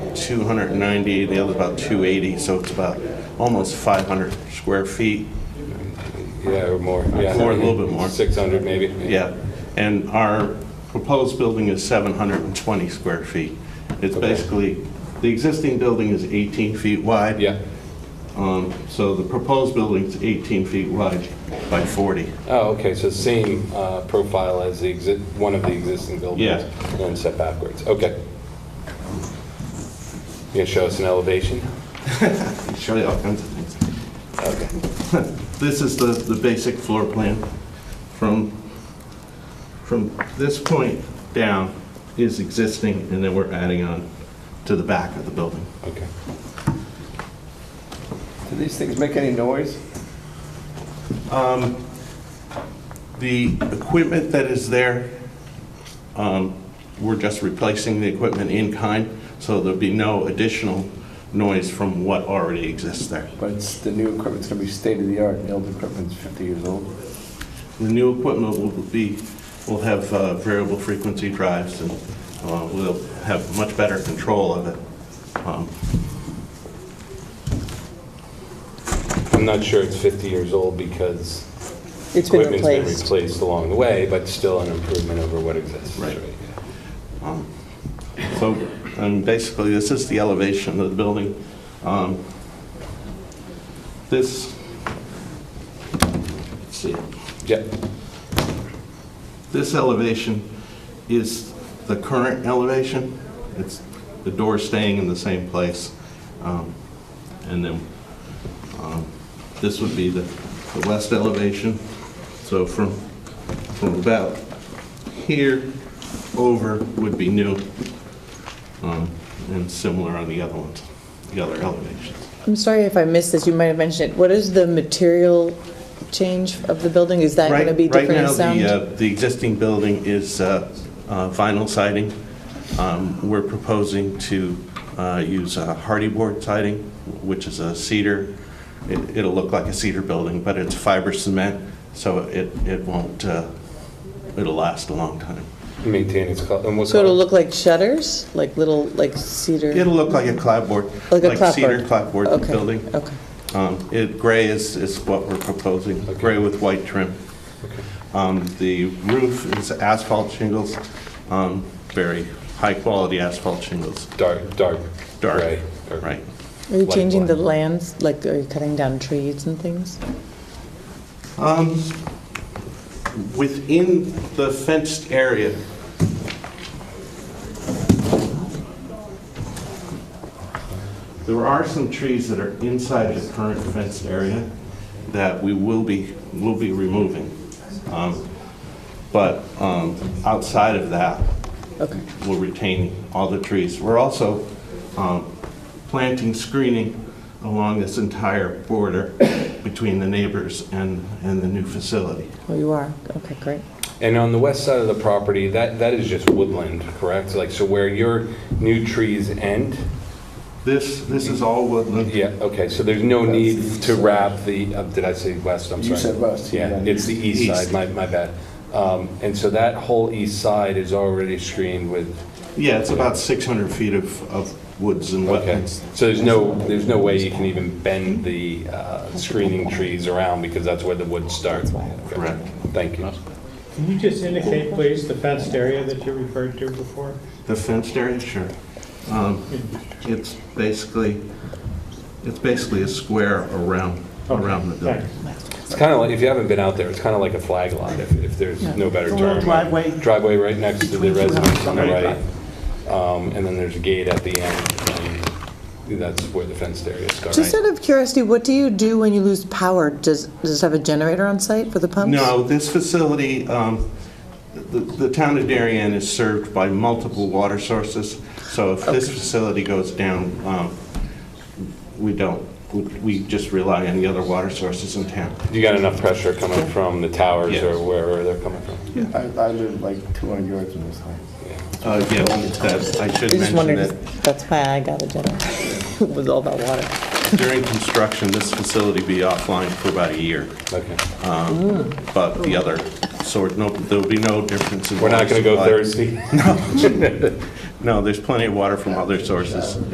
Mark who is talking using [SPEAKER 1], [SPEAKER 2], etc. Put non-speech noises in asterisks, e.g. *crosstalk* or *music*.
[SPEAKER 1] 290, the other's about 280, so it's about almost 500 square feet.
[SPEAKER 2] Yeah, or more, yeah.
[SPEAKER 1] More, a little bit more.
[SPEAKER 2] 600 maybe.
[SPEAKER 1] Yeah, and our proposed building is 720 square feet. It's
[SPEAKER 2] Okay.
[SPEAKER 1] basically, the existing building is 18 feet wide.
[SPEAKER 2] Yeah.
[SPEAKER 1] Um, So the proposed building's 18 feet wide by 40.
[SPEAKER 2] Oh, okay, so same uh, profile as the, exi- one of the existing buildings?
[SPEAKER 1] Yeah.
[SPEAKER 2] And then step backwards, okay. You gonna show us an elevation?
[SPEAKER 1] I'll Show you all kinds of things.
[SPEAKER 2] Okay.
[SPEAKER 1] This is the, the basic floor plan. From, from this point down is existing, and then we're adding on to the back of the building.
[SPEAKER 2] Okay.
[SPEAKER 3] Do these things make any noise?
[SPEAKER 1] The equipment that is there, um, we're just replacing the equipment in kind, so there'll be no additional noise from what already exists there.
[SPEAKER 3] But it's, the new equipment's gonna be state of the art, and the old equipment's 50 years old.
[SPEAKER 1] The new equipment will be, will have uh, variable frequency drives, and uh, we'll have much better control of it. Um,
[SPEAKER 2] I'm not sure it's 50 years old because
[SPEAKER 4] It's been
[SPEAKER 2] equipment's been
[SPEAKER 4] replaced.
[SPEAKER 2] replaced along the way, but still an improvement over what exists.
[SPEAKER 1] Right.
[SPEAKER 2] yeah.
[SPEAKER 1] So, um, basically, this is the elevation of the building. Um, This, let's see,
[SPEAKER 2] Yep.
[SPEAKER 1] this elevation is the current elevation. It's the door staying in the same place. Um, And then um, this would be the the west elevation. So from, from about here over would be new um, and similar on the other ones, the other elevations.
[SPEAKER 4] I'm sorry if I missed this, you might have mentioned it. What is the material change of the building? Is that going to
[SPEAKER 1] Right-
[SPEAKER 4] be different in
[SPEAKER 1] Right now,
[SPEAKER 4] sound?
[SPEAKER 1] the, uh, the existing building is uh, uh, vinyl siding. Um, We're proposing to uh, use uh, hardy board siding, which is a cedar. It- It'll look like a cedar building, but it's fiber cement, so it, it won't, uh, it'll last a long time.
[SPEAKER 2] Maintain its color,
[SPEAKER 1] uh,
[SPEAKER 2] and what's
[SPEAKER 4] So it'll
[SPEAKER 2] called
[SPEAKER 4] look like shutters, like little, like cedar?
[SPEAKER 1] It'll look like a clapboard.
[SPEAKER 4] Like a
[SPEAKER 1] cedar clapboard
[SPEAKER 4] Okay,
[SPEAKER 1] building.
[SPEAKER 4] Okay.
[SPEAKER 1] Um, It, gray is, is what we're proposing, gray with white trim. Um, The roof is asphalt shingles, um, very high-quality asphalt shingles,
[SPEAKER 2] dark, dark.
[SPEAKER 1] dark,
[SPEAKER 2] gray, dark-
[SPEAKER 1] right?
[SPEAKER 4] Are you
[SPEAKER 2] Like
[SPEAKER 4] changing the
[SPEAKER 2] what?
[SPEAKER 4] lands, like are you cutting down trees and things?
[SPEAKER 1] Um, Within the fenced area, there are some trees that are inside the current fenced area that we will be, will be removing. Um, But um, outside of that,
[SPEAKER 4] Okay.
[SPEAKER 1] we'll retain all the trees. We're also um, planting screening along this entire border *coughs* between the neighbors and, and the new facility.
[SPEAKER 4] Oh, you are? Okay, great.
[SPEAKER 2] And on the west side of the property, that, that is just woodland, correct? Like, so where your new trees end?
[SPEAKER 1] This, this is all woodland.
[SPEAKER 2] Yeah, okay, so there's no
[SPEAKER 3] That's the
[SPEAKER 2] need
[SPEAKER 3] east
[SPEAKER 2] to
[SPEAKER 3] side.
[SPEAKER 2] wrap the, uh, did I say west? I'm
[SPEAKER 3] You
[SPEAKER 2] sorry.
[SPEAKER 3] said west,
[SPEAKER 2] Yeah,
[SPEAKER 3] yeah.
[SPEAKER 2] it's the east
[SPEAKER 1] East.
[SPEAKER 2] side, my, my bad. Um, And so that whole east side is already screened with,
[SPEAKER 1] Yeah, it's about 600 feet of, of woods and
[SPEAKER 2] okay.
[SPEAKER 1] wetlands.
[SPEAKER 2] So there's no, there's no way you can even bend the uh, screening trees around because that's where the woods start. Okay.
[SPEAKER 1] Correct.
[SPEAKER 2] Thank you.
[SPEAKER 5] Can you just indicate, please, the fenced area that you referred to before?
[SPEAKER 1] The fenced area, sure. Um, It's basically, it's basically a square around, around the building.
[SPEAKER 5] Thanks.
[SPEAKER 2] It's kind of like, if you haven't been out there, it's kind of like a flag lot, if, if there's no better
[SPEAKER 5] It's a little
[SPEAKER 2] term.
[SPEAKER 5] driveway.
[SPEAKER 2] Driveway right next to the residence on the right. Um, and then there's a gate at the end, and that's where the fenced area
[SPEAKER 4] Just
[SPEAKER 2] starts.
[SPEAKER 4] out of curiosity, what do you do when you lose power? Does, does it have a generator on site for the pumps?
[SPEAKER 1] No, this facility, um, the the town of Darien is served by multiple water sources, so if this facility goes down, um, we don't, we- we just rely on the other water sources in town.
[SPEAKER 2] You got enough pressure coming from the towers or
[SPEAKER 1] Yes.
[SPEAKER 2] wherever they're coming from?
[SPEAKER 3] I, I live like 200 yards from this house.
[SPEAKER 1] Uh, Yeah, that- I should
[SPEAKER 4] I just
[SPEAKER 1] mention
[SPEAKER 4] wondered,
[SPEAKER 1] that
[SPEAKER 4] if that's why I got a generator, *laughs* was all about water.
[SPEAKER 1] during construction, this facility be offline for about a year,
[SPEAKER 2] Okay.
[SPEAKER 1] but the other, so no- there'll be no difference in
[SPEAKER 2] We're not
[SPEAKER 1] water
[SPEAKER 2] gonna go
[SPEAKER 1] supply.
[SPEAKER 2] Thursday.
[SPEAKER 1] *laughs* No, there's plenty of water from other sources.